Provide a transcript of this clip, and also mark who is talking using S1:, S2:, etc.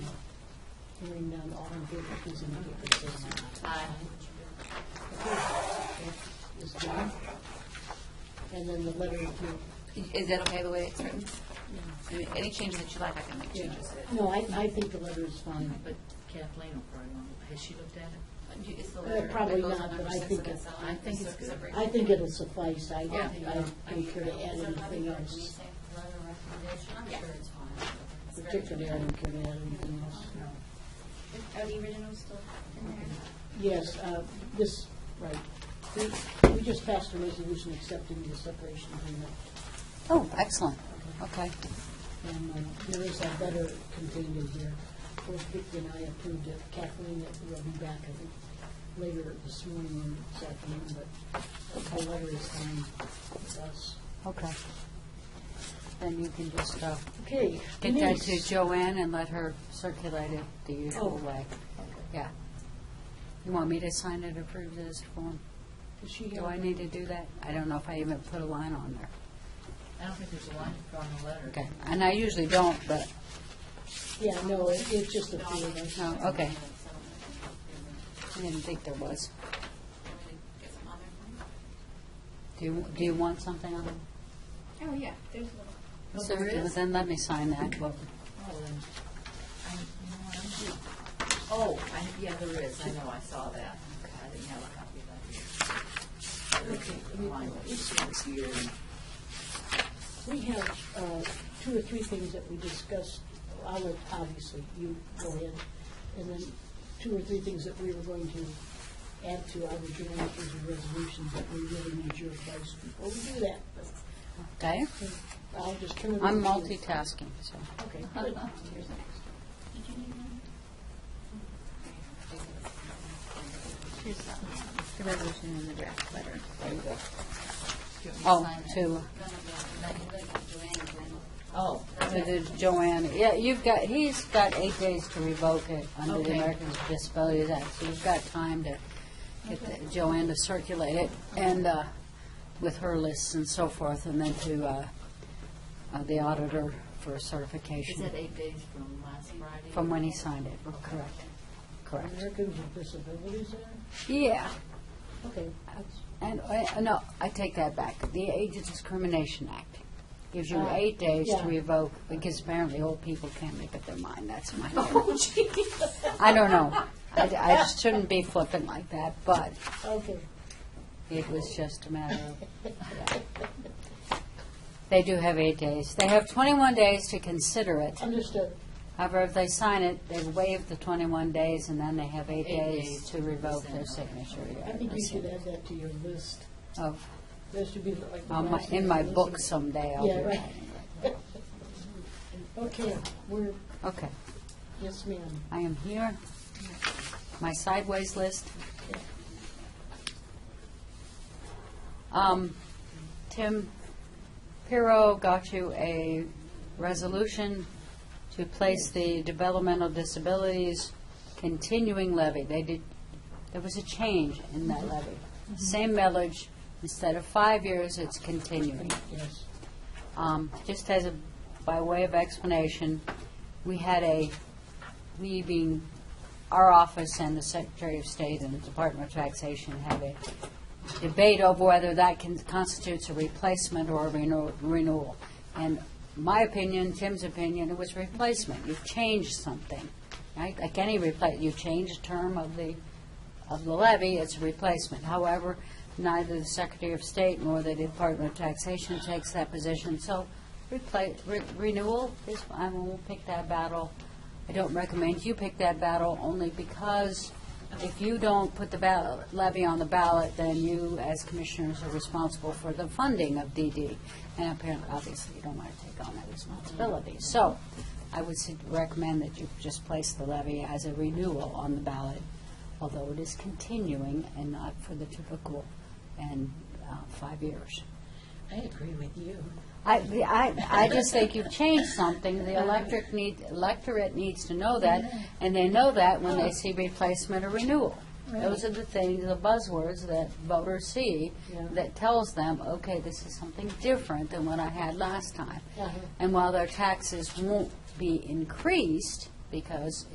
S1: Hearing none, all in favor, please indicate by saying
S2: Um,
S1: aye. Aye. Is done. And then the letter of appeal.
S2: Is that okay the way it's written? I mean, Any changes that you like, I can make
S1: Yeah.
S2: changes.
S1: No, I, I think the letter is fine.
S3: But Kathleen will probably want, has she looked at it?
S2: Uh, you- it's the
S1: Uh,
S2: letter that
S1: probably
S2: goes on
S1: not,
S2: number
S1: but I
S2: six
S1: think
S2: of that
S1: it-
S2: cell.
S3: I think it's good.
S2: separate.
S1: I think it'll suffice. I,
S3: Yeah.
S1: I don't care to add anything else. Particularly, I don't care to add anything else.
S4: Are the originals still in there?
S1: Yes, uh, this, right. We, we just passed a resolution accepting the separation agreement.
S2: Oh, excellent. Okay.
S1: And um, there is a letter contained in here. Both Vicki and I approved it. Kathleen will be back, I think, later this morning or this afternoon, but the letter is signed with us.
S2: Okay. Then you can just uh,
S1: Okay.
S2: get that to
S1: Denise.
S2: Joanne and let her circulate it the usual
S1: Oh.
S2: way. Yeah. You want me to sign it, approve this form?
S1: Does she
S2: Do
S1: have-
S2: I need to do that? I don't know if I even put a line on there.
S3: I don't think there's a line drawn in the letter.
S2: Okay. And I usually don't, but,
S1: Yeah, no, it- it's just a feeling.
S2: no, Oh, okay. I didn't think there was. Do you, do you want something on it?
S4: Oh, yeah, there's a little.
S3: No,
S2: So
S3: there is.
S2: Then let me sign that. Well,
S3: Oh, then, I, you know what, I'm due. Oh, I, yeah, there is, I know, I saw that. I didn't have a copy of that. There is a line that was here and-
S1: We have uh, two or three things that we discussed. I'll let, obviously, you go ahead. And then two or three things that we were going to add to our joint and resolutions that we really need your advice before we do that.
S2: Okay?
S1: I'll just turn it.
S2: I'm
S1: over to you.
S2: multitasking, so.
S1: Okay.
S4: Here's that. The resolution and the draft letter.
S2: Oh, to,
S3: Oh,
S2: to the Joanne, yeah, you've got, he's got eight days to revoke it under the
S3: Okay.
S2: Americans with Disabilities Act, so you've got time to get the- Joanne to circulate it, and, uh, with her lists and so forth, and then to, uh, uh, the auditor for
S3: is that
S2: certification
S3: eight days from last Friday?
S2: from when he signed it, correct, correct.
S1: Americans with Disabilities Act?
S2: Yeah,
S1: Okay.
S2: And, uh, no, I take that back. The Age of Discrimination Act gives you eight days to
S1: Uh, yeah.
S2: revoke, because apparently old people can't make up their mind, that's my Oh, I don't know. I, I shouldn't be flippant like that, but
S1: Okay.
S2: it was just a matter of, yeah. They do have eight days. They have 21 days to consider it.
S1: Understood.
S2: However, if they sign it, they waive the 21 days, and then they have eight
S3: Eight
S2: days
S3: days
S2: to revoke their
S3: percent.
S2: signature.
S1: I
S2: yeah,
S1: think you should
S2: percent
S1: add that to your list.
S2: Of
S1: That should be like. the
S2: On my,
S1: last thing
S2: Um, in my
S1: on the
S2: book
S1: list.
S2: someday, I'll
S1: Yeah,
S2: do
S1: right.
S2: that.
S1: Okay, we're,
S2: Okay,
S1: yes, ma'am.
S2: I am here. My sideways list. Um, Tim Piro got you a resolution to place the developmental disabilities continuing levy. They did, there was a change in
S1: Mm-hmm.
S2: that levy. Same millage, instead of five years, it's continuing.
S1: Yes.
S2: Um, Just as a, by way of explanation, we had a, we being our office and the Secretary of State and the Department of Taxation have a debate over whether that can, constitutes a replacement or a renew- renewal. And my opinion, Tim's opinion, it was replacement. You've changed something, right? Like any repla, you change a term of the, of the levy, it's a replacement. However, neither the Secretary of State nor the Department of Taxation takes that position, so repla re- renewal is, I won't pick that battle. I don't recommend you pick that battle, only because if you don't put the ba- levy on the ballot, then you, as commissioners, are responsible for the funding of DD. And apparently, obviously, you don't want to take on that responsibility. So I would su- recommend that you just place the levy as a renewal on the ballot, although it is continuing and not for the typical and uh, five years.
S1: I agree with you.
S2: I, I, I just think you've changed something. The electric need, electorate needs to know that, and they know that when they see replacement or renewal. Those are the things, the buzzwords that voters see
S1: Yeah.
S2: that tells them, okay, this is something different than what I had last time.
S1: Uh-huh.
S2: And while their taxes won't be increased because